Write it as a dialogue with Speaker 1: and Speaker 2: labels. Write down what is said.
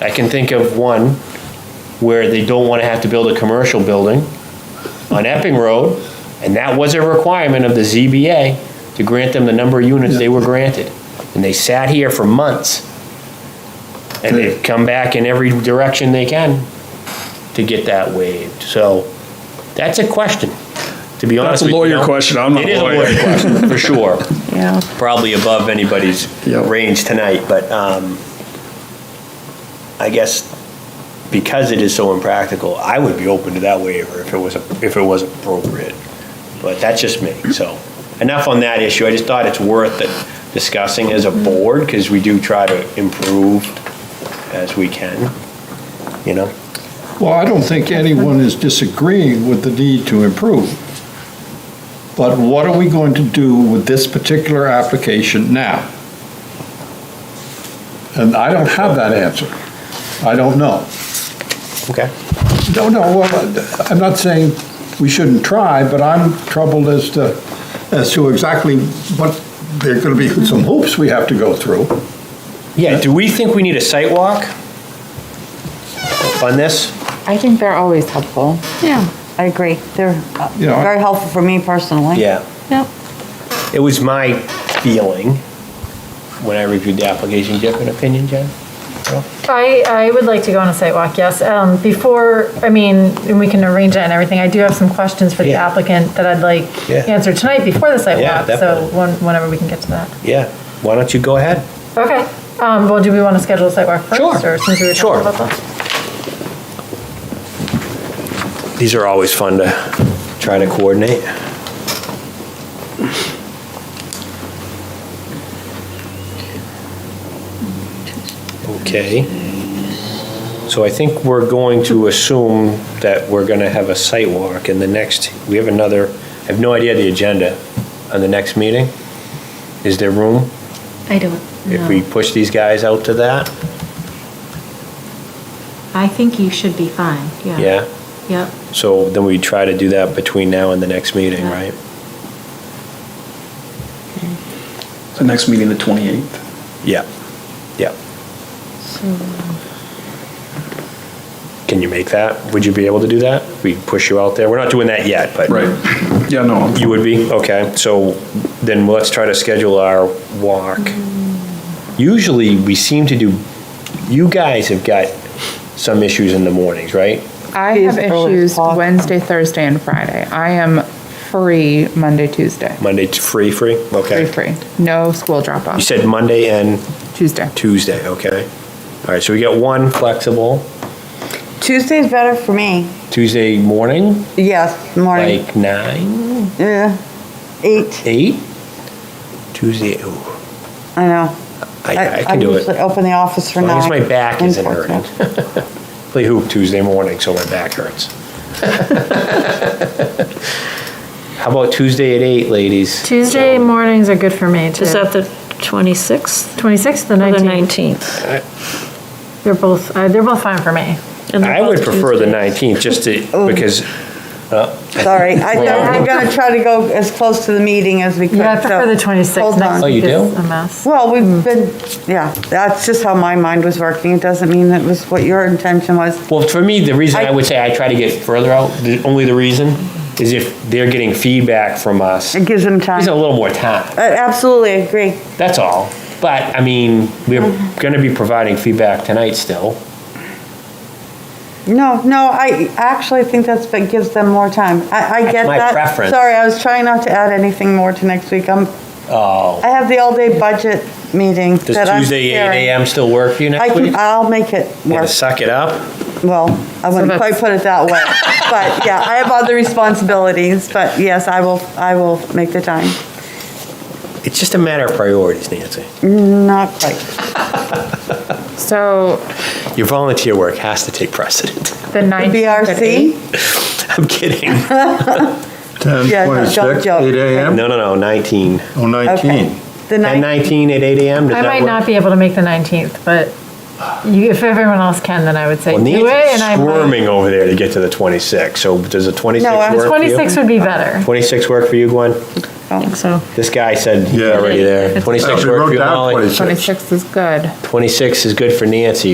Speaker 1: I can think of one where they don't want to have to build a commercial building on Epping Road, and that was a requirement of the ZBA to grant them the number of units they were granted. And they sat here for months, and they've come back in every direction they can to get that waived. So that's a question, to be honest with
Speaker 2: That's a
Speaker 1: you.
Speaker 2: lawyer
Speaker 1: Now,
Speaker 2: question, I'm not
Speaker 1: It
Speaker 2: a
Speaker 1: is a
Speaker 2: lawyer.
Speaker 1: lawyer question, for sure.
Speaker 3: Yeah.
Speaker 1: Probably above anybody's
Speaker 2: Yep.
Speaker 1: range tonight, but um, I guess because it is so impractical, I would be open to that waiver if it was, if it was appropriate. But that's just me, so. Enough on that issue, I just thought it's worth it discussing as a board, because we do try to improve as we can, you know?
Speaker 4: Well, I don't think anyone is disagreeing with the need to improve. But what are we going to do with this particular application now? And I don't have that answer. I don't know.
Speaker 1: Okay.
Speaker 4: No, no, well, I'm not saying we shouldn't try, but I'm troubled as to, as to exactly what, there are going to be some hoops we have to go through.
Speaker 1: Yeah, do we think we need a site walk on this?
Speaker 3: I think they're always helpful.
Speaker 5: Yeah,
Speaker 3: I agree. They're uh,
Speaker 4: You know, I-
Speaker 3: very helpful for me personally.
Speaker 1: Yeah.
Speaker 5: yep.
Speaker 1: It was my feeling when I reviewed the application. Do you have an opinion, Jen?
Speaker 5: I, I would like to go on a site walk, yes. Um, before, I mean, and we can arrange it and everything, I do have some questions for the
Speaker 1: Yeah.
Speaker 5: applicant that I'd like
Speaker 1: Yeah.
Speaker 5: answered tonight before the site
Speaker 1: Yeah,
Speaker 5: walk, so
Speaker 1: definitely.
Speaker 5: when- whenever we can get to that.
Speaker 1: Yeah. Why don't you go ahead?
Speaker 5: Okay, um, well, do we want to schedule a site walk first?
Speaker 1: Sure.
Speaker 5: Or since we were
Speaker 1: Sure.
Speaker 5: talking about that?
Speaker 1: These are always fun to try to coordinate. Okay. So I think we're going to assume that we're going to have a site walk in the next, we have another, I have no idea the agenda on the next meeting. Is there room?
Speaker 6: I don't
Speaker 1: if we
Speaker 6: know.
Speaker 1: push these guys out to that,
Speaker 6: I think you should be fine, yeah.
Speaker 1: yeah?
Speaker 6: Yep.
Speaker 1: So then we try to do that between now and the next meeting, right?
Speaker 2: The next meeting, the 28th.
Speaker 1: Yeah, yeah. Can you make that? Would you be able to do that? We push you out there? We're not doing that yet, but.
Speaker 2: Right. Yeah, no, I'm-
Speaker 1: You would be? Okay, so then let's try to schedule our walk. Usually, we seem to do, you guys have got some issues in the mornings, right?
Speaker 7: I have
Speaker 3: Please, early
Speaker 7: issues
Speaker 3: clock.
Speaker 7: Wednesday, Thursday, and Friday. I am free Monday, Tuesday.
Speaker 1: Monday, t- free, free?
Speaker 7: Free,
Speaker 1: Okay.
Speaker 7: free. No school drop
Speaker 1: You
Speaker 7: off,
Speaker 1: said Monday and?
Speaker 7: Tuesday.
Speaker 1: Tuesday, okay? All right, so we got one flexible,
Speaker 3: Tuesday's better for me.
Speaker 1: Tuesday morning,
Speaker 3: Yes, morning.
Speaker 1: like nine,
Speaker 3: Yeah, eight,
Speaker 1: eight? Tuesday, ooh,
Speaker 3: I know.
Speaker 1: I, I can do
Speaker 3: usually
Speaker 1: it.
Speaker 3: open the office for
Speaker 1: As
Speaker 3: nine.
Speaker 1: long as my back isn't
Speaker 3: Unfortunately.
Speaker 1: hurting. Play hoop Tuesday morning, so my back hurts. How about Tuesday at eight, ladies?
Speaker 5: Tuesday mornings are good for me, too.
Speaker 6: Is that the 26th
Speaker 5: 26th, the
Speaker 6: or the
Speaker 5: 19th?
Speaker 6: 19th?
Speaker 5: They're both, uh, they're both fine for me.
Speaker 6: And they're
Speaker 1: I would
Speaker 6: both
Speaker 1: prefer the
Speaker 6: Tuesdays.
Speaker 1: nineteenth, just to, because,
Speaker 3: Sorry, I, I'm gonna try to go as close to the meeting as we can.
Speaker 5: Yeah, I prefer the
Speaker 3: so-
Speaker 5: 26th.
Speaker 3: Hold
Speaker 5: Next
Speaker 3: on.
Speaker 1: Oh, you
Speaker 5: week is
Speaker 1: do?
Speaker 5: A mess.
Speaker 3: Well, we've been, yeah, that's just how my mind was working. It doesn't mean that was what your intention was.
Speaker 1: well, for me, the reason I
Speaker 3: I-
Speaker 1: would say I try to get further out, the only the reason is if they're getting feedback from us,
Speaker 3: It gives them time.
Speaker 1: gives a
Speaker 3: I
Speaker 1: little more time.
Speaker 3: absolutely agree.
Speaker 1: That's all. But, I mean, we're going to be providing feedback tonight still.
Speaker 3: No, no, I actually think that's, but gives them more time. I, I get
Speaker 1: my
Speaker 3: that.
Speaker 1: preference.
Speaker 3: Sorry, I was trying not to add anything more to next week. I'm,
Speaker 1: Oh.
Speaker 3: I have the all-day budget meeting that
Speaker 1: Does
Speaker 3: I'm
Speaker 1: Tuesday, 8
Speaker 3: preparing.
Speaker 1: AM still work for you
Speaker 3: I
Speaker 1: next week?
Speaker 3: can, I'll make it
Speaker 1: You
Speaker 3: work.
Speaker 1: gonna suck it up?
Speaker 3: Well, I wouldn't
Speaker 7: that's-
Speaker 3: quite put it that way. But yeah, I have other responsibilities, but yes, I will, I will make the time.
Speaker 1: It's just a matter of priorities, Nancy.
Speaker 3: Not quite.
Speaker 7: So
Speaker 1: Your volunteer work has to take precedent.
Speaker 7: the 19th at eight?
Speaker 3: BRC?
Speaker 1: I'm kidding.
Speaker 4: 10,
Speaker 3: Yeah, no, don't
Speaker 4: 26,
Speaker 3: joke.
Speaker 4: 8 a.m.,
Speaker 1: No, no, no, 19.
Speaker 4: oh, 19.
Speaker 3: Okay. The
Speaker 1: 10,
Speaker 3: ninth,
Speaker 1: 19 at 8 AM, does
Speaker 5: I
Speaker 1: that
Speaker 5: might not
Speaker 1: work?
Speaker 5: be able to make the 19th, but you, if everyone else can, then I would say
Speaker 1: Well,
Speaker 5: do it.
Speaker 1: Nancy's
Speaker 5: and I might-
Speaker 1: squirming over there to get to the 26, so does the 26
Speaker 3: No, I'm
Speaker 1: work for you?
Speaker 5: 26 would be better.
Speaker 1: 26 work for you, Gwen?
Speaker 6: I think so.
Speaker 1: This guy said he's
Speaker 4: Yeah.
Speaker 1: already there.
Speaker 4: I
Speaker 1: 26
Speaker 4: actually
Speaker 1: work for
Speaker 4: wrote
Speaker 1: you,
Speaker 4: down
Speaker 1: Molly?
Speaker 4: 26.
Speaker 7: 26th is good.
Speaker 1: 26 is good for Nancy,